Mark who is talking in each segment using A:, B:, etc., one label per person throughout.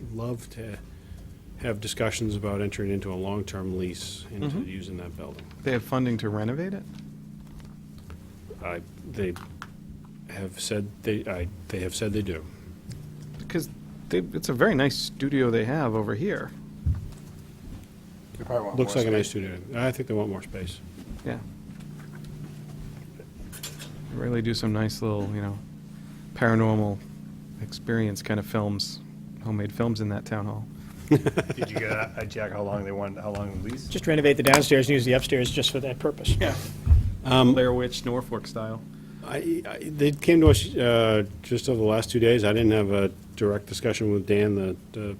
A: would love to have discussions about entering into a long-term lease into
B: Mm-hmm.
A: using that building.
C: They have funding to renovate it?
A: I, they have said, they, I, they have said they do.
C: Because they, it's a very nice studio they have over here.
B: They probably want
A: Looks
B: more
A: like a nice
B: space.
A: studio. I think they want more space.
C: Yeah. They really do some nice little, you know, paranormal experience kind of films, homemade films in that town hall.
B: Did you get a a check how long they want, how long the lease?
D: Just renovate the downstairs and use the upstairs just for that purpose.
C: Yeah. Um, Blair Witch, Norfolk style.
A: I, I, they came to us, uh, just over the last two days. I didn't have a direct discussion with Dan, the, the,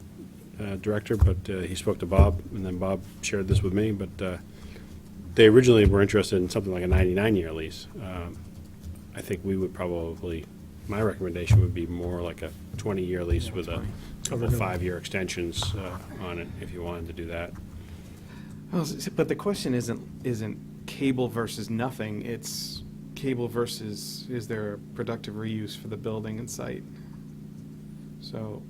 A: uh, director, but, uh, he spoke to Bob, and then Bob shared this with me, but, uh, they originally were interested in something like a ninety-nine year lease. Um, I think we would probably, my recommendation would be more like a twenty-year lease with a couple
D: renewal.
A: five-year extensions, uh, on it, if you wanted to do that.
C: Well, s- But the question isn't, isn't cable versus nothing, it's cable versus, is there a productive reuse for the building and site? So,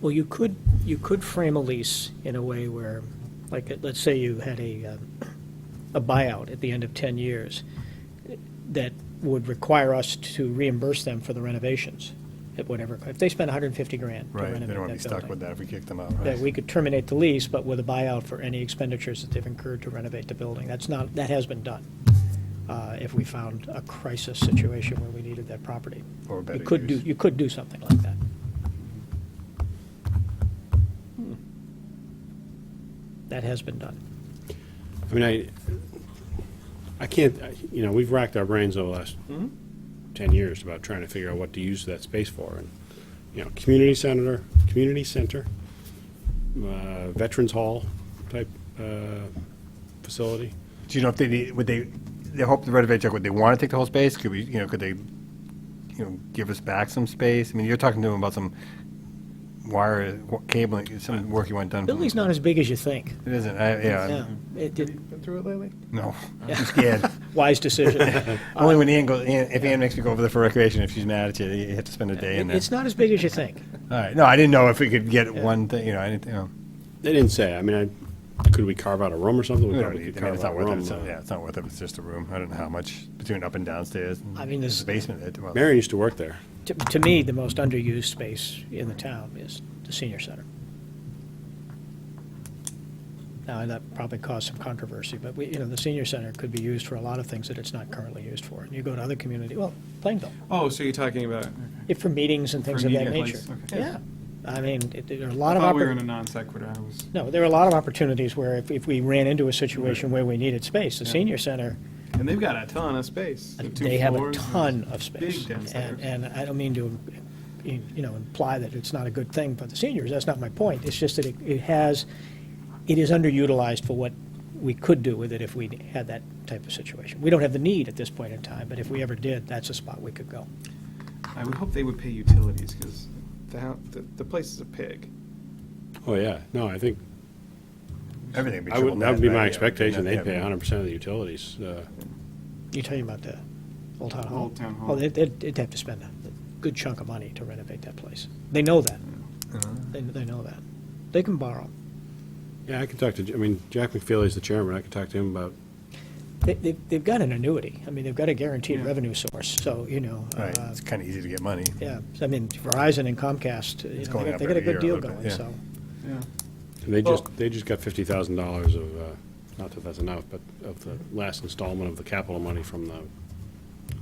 D: Well, you could, you could frame a lease in a way where, like, uh, let's say you had a, um, a buyout at the end of 10 years that would require us to reimburse them for the renovations at whatever, if they spend 150 grand to
B: Right,
D: renovate
B: they
D: that
B: don't want
D: building.
B: to be stuck with that if we kick them out.
D: That
B: right?
D: we could terminate the lease, but with a buyout for any expenditures that they've incurred to renovate the building. That's not, that has been done, uh, if we found a crisis situation where we needed that property.
B: Or better
D: You could do,
B: use.
D: you could do something like that.
B: Hmm.
D: That has been done.
A: I mean, I, I can't, I- you know, we've racked our brains over the last 10 years about trying to figure out what to use that space for. And, you know, community center, community center, uh, Veterans Hall type uh, facility.
B: Do you know if they need, would they, they hope to renovate check, would they want to take the whole space? Could we, you know, could they, you know, give us back some space? I mean, you're talking to them about some wire, wa- cabling, some work you want done. for them.
D: Building's not as big as you think.
B: It isn't, I, yeah,
D: Yeah. It did,
C: been through it lately?
B: no, I'm scared.
D: wise decision.
B: Only when Ann goes, Ann- if Ann makes me go over there for recreation, if she's mad at you, you have to spend a day in there.
D: It's not as big as you think.
B: All right, no, I didn't know if we could get one thing, you know, I didn't, you know.
A: They didn't say, I mean, I, could we carve out a room or something?
B: We don't
A: probably
B: need-
A: could
B: I mean, it's not
A: carve out a
B: worth it.
A: room.
B: It's not- Yeah, it's not worth it. It's just a room. I don't know how much between up and downstairs. and
D: I mean, this-
B: the basement. it- well,
A: Marion used to work there.
D: To, to me, the most underused space in the town is the senior center. Now, that probably caused some controversy, but we, you know, the senior center could be used for a lot of things that it's not currently used for. And you go to other community, well, Plainville,
C: Oh, so you're talking about,
D: if for meetings and things
C: For
D: of that
C: meeting
D: nature.
C: place, okay.
D: Yeah, I mean, it- there are a
C: I
D: lot of.
C: thought we were
D: oppor-
C: in a non sequitur, I was.
D: No, there are a lot of opportunities where if, if we ran into a situation where we needed space, the
C: Yeah.
D: senior center,
C: And they've got a ton of space. the two
D: they have a
C: floors and-
D: ton of space.
C: big downstairs.
D: And, and I don't mean to, you you know, imply that it's not a good thing for the seniors, that's not my point. It's just that it, it has, it is underutilized for what we could do with it if we had that type of situation. We don't have the need at this point in time, but if we ever did, that's a spot we could go.
C: I would hope they would pay utilities, because the, hou- the, the place is a pig.
A: Oh, yeah. No, I think,
B: Everything would be
A: I
B: triple
A: would,
B: net.
A: that would be
B: right?
A: my
B: Yeah,
A: expectation.
B: yeah,
A: They'd pay
B: yeah.
A: 100% of the utilities. uh,
D: You talking about the Old Town Hall?
C: Old Town Hall.
D: Well, they'd, they'd they'd have to spend a good chunk of money to renovate that place. They know that. They, they know that. They can borrow.
A: Yeah, I could talk to, J- I mean, Jack McFeely's the chairman. I could talk to him about
D: They, they've, they've got an annuity. I mean, they've got a guaranteed
C: Yeah.
D: revenue source, so, you know.
B: Right,
D: uh,
B: it's kind of easy to get money.
D: Yeah, I mean, Verizon and Comcast, you
B: It's
D: know,
B: going
D: they got-
B: up
D: they got a
B: every year
D: good
B: a
D: deal
B: little bit,
D: going,
B: yeah.
D: so.
C: Yeah.
A: And They
C: Well-
A: just, they just got fifty thousand dollars of, uh, not that that's enough, but of the last installment of the capital money from the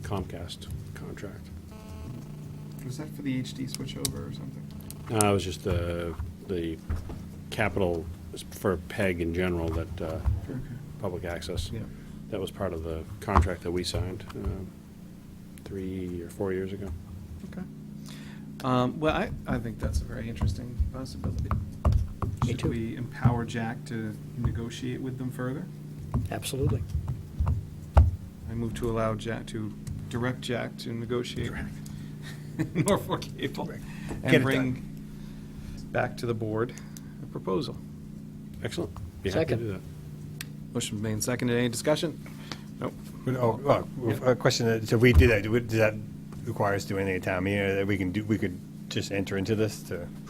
A: Comcast contract.
C: Was that for the HD switchover or something?
A: No, Uh, it was just the, the capital for PEG in general, that, uh,
C: Okay.
A: public access.
C: Yeah.
A: That was part of the contract that we signed, um, three or four years ago.
C: Okay. Um, well, I, I think that's a very interesting possibility.
D: Me
C: Should
D: too.
C: we empower Jack to negotiate with them further?
D: Absolutely.
C: I move to allow Jack, to direct Jack to negotiate Norfolk Cable
B: Get it
C: and bring back to the board a proposal.
A: Excellent. Be happy to
D: Second.
A: do that.
C: Motion made and seconded. Any discussion? Nope.
B: But, oh, well,
C: Yeah.
B: a question, that- so we did that, do we- does that require us doing anything at town meeting, or that we can do, we could just enter into this to?